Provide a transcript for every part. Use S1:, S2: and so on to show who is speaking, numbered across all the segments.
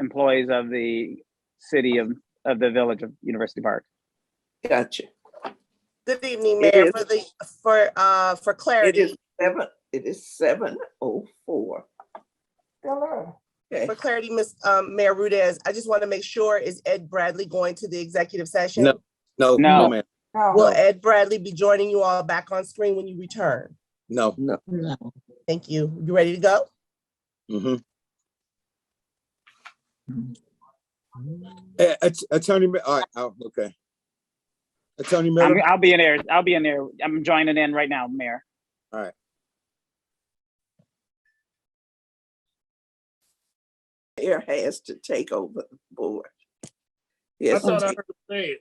S1: employees of the city of, of the village of University Park.
S2: Gotcha.
S3: Good evening,
S2: It
S3: Mayor.
S2: is-
S3: For the, for, uh, for
S2: It
S3: clarity,
S2: is seven, it is seven oh four. Okay,
S3: for clarity, Miss, um, Mayor Rudez, I just want to make sure, is Ed Bradley going to the executive session?
S4: No. No,
S1: No.
S4: no, ma'am.
S3: Will Ed Bradley be joining you all back on screen when you return?
S4: No.
S3: Thank you. You ready to go?
S4: Mhm. Eh, att- Attorney, Mi- all right, oh, okay. Attorney
S1: I'm,
S4: Miller,
S1: I'll be in there. I'll be in there. I'm joining in right now, Mayor.
S2: mayor has to take over the board.
S5: I
S2: Yes,
S5: thought I heard him say it.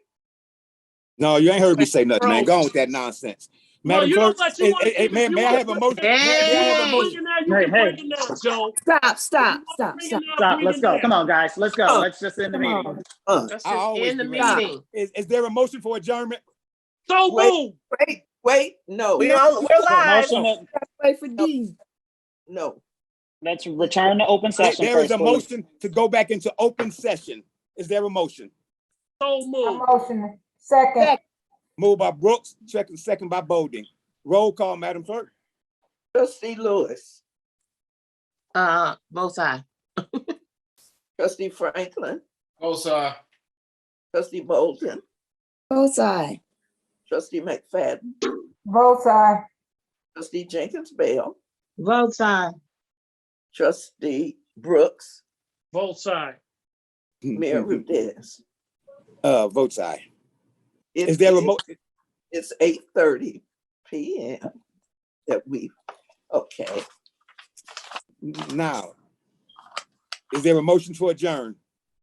S4: no, you ain't heard me say nothing, man. Go on with that nonsense.
S5: No,
S4: Madam
S5: you know
S4: Clerk,
S5: what
S4: eh,
S5: you want.
S4: eh, eh, may, may I have a motion? May- may I have a
S5: You
S4: motion?
S5: can break it down, Joe.
S6: Stop, stop, stop, stop.
S1: Stop, let's go. Come on, guys. Let's go.
S2: Oh,
S1: Let's just end the
S2: come
S1: meeting.
S2: on.
S5: That's
S4: I
S5: just
S4: always
S5: in the
S4: do that.
S5: meeting.
S4: Is, is there a motion for adjournment?
S5: So
S2: Wait.
S5: move.
S2: wait, wait, no,
S3: We all, we're live.
S1: Motion, to-
S6: Wait for D.
S2: no.
S1: let's return to open
S4: There-
S1: session
S4: There is
S1: first.
S4: a
S1: please.
S4: motion to go back into open session. Is there a motion?
S5: So move.
S7: Motion, second,
S4: Moved by Brooks, second, second by Bolding. Roll call, Madam Clerk.
S2: Trustee Lewis,
S6: Uh, both eye.
S2: trustee Franklin,
S8: Both side.
S2: trustee Bolden,
S6: Both eye.
S2: trustee McFadden,
S7: both side,
S2: trustee Jenkins Bell,
S6: Both side.
S2: trustee Brooks,
S5: Both sides.
S2: Mayor Rudez.
S4: Uh, votes aye.
S2: It
S4: Is there a mo-
S2: It's eight thirty P M that we, okay,
S4: Now, is there a motion to adjourn?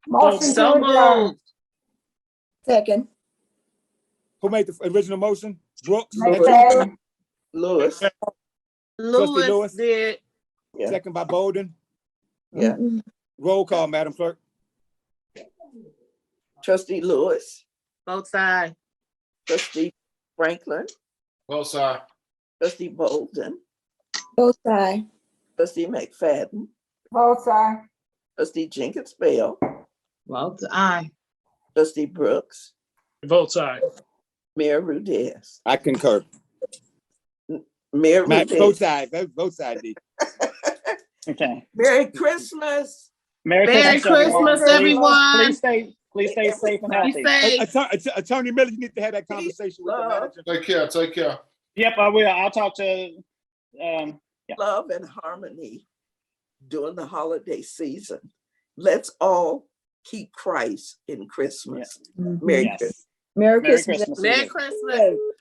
S7: motion to adjourn.
S6: Second.
S4: Who made the original motion? Brooks,
S7: McFadden,
S2: Lewis,
S4: Trustee Lewis?
S6: Lewis did.
S2: yeah.
S4: second by Bowden.
S2: Yeah.
S4: Roll call, Madam Clerk.
S2: trustee Lewis,
S6: Both side.
S2: trustee Franklin,
S8: Both side.
S2: trustee Bolden,
S6: Both side.
S2: trustee McFadden,
S7: both side,
S2: trustee Jenkins Bell,
S6: Both eye.
S2: trustee Brooks,
S5: Both sides.
S2: Mayor Rudez.
S4: I concur.
S2: Mayor
S4: Ma- Both
S2: Rudez,
S4: sides, vote- both sides. D.
S1: Okay.
S2: Merry Christmas.
S1: Merry
S6: Merry Christmas, everyone.
S1: Please stay, please stay safe and
S6: Be
S1: healthy.
S4: Hey,
S6: safe.
S4: Attor- Att- Attorney Miller, you need to have that conversation with the
S2: Love,
S4: manager.
S8: Take care, take care.
S1: Yep, I will. I'll talk to, um, Yeah.
S2: love and harmony during the holiday season. Let's all keep Christ in Christmas. Merry
S1: yes.
S2: Christmas.
S6: Merry
S1: Merry
S6: Christmas.
S1: Christmas.
S6: Merry Christmas.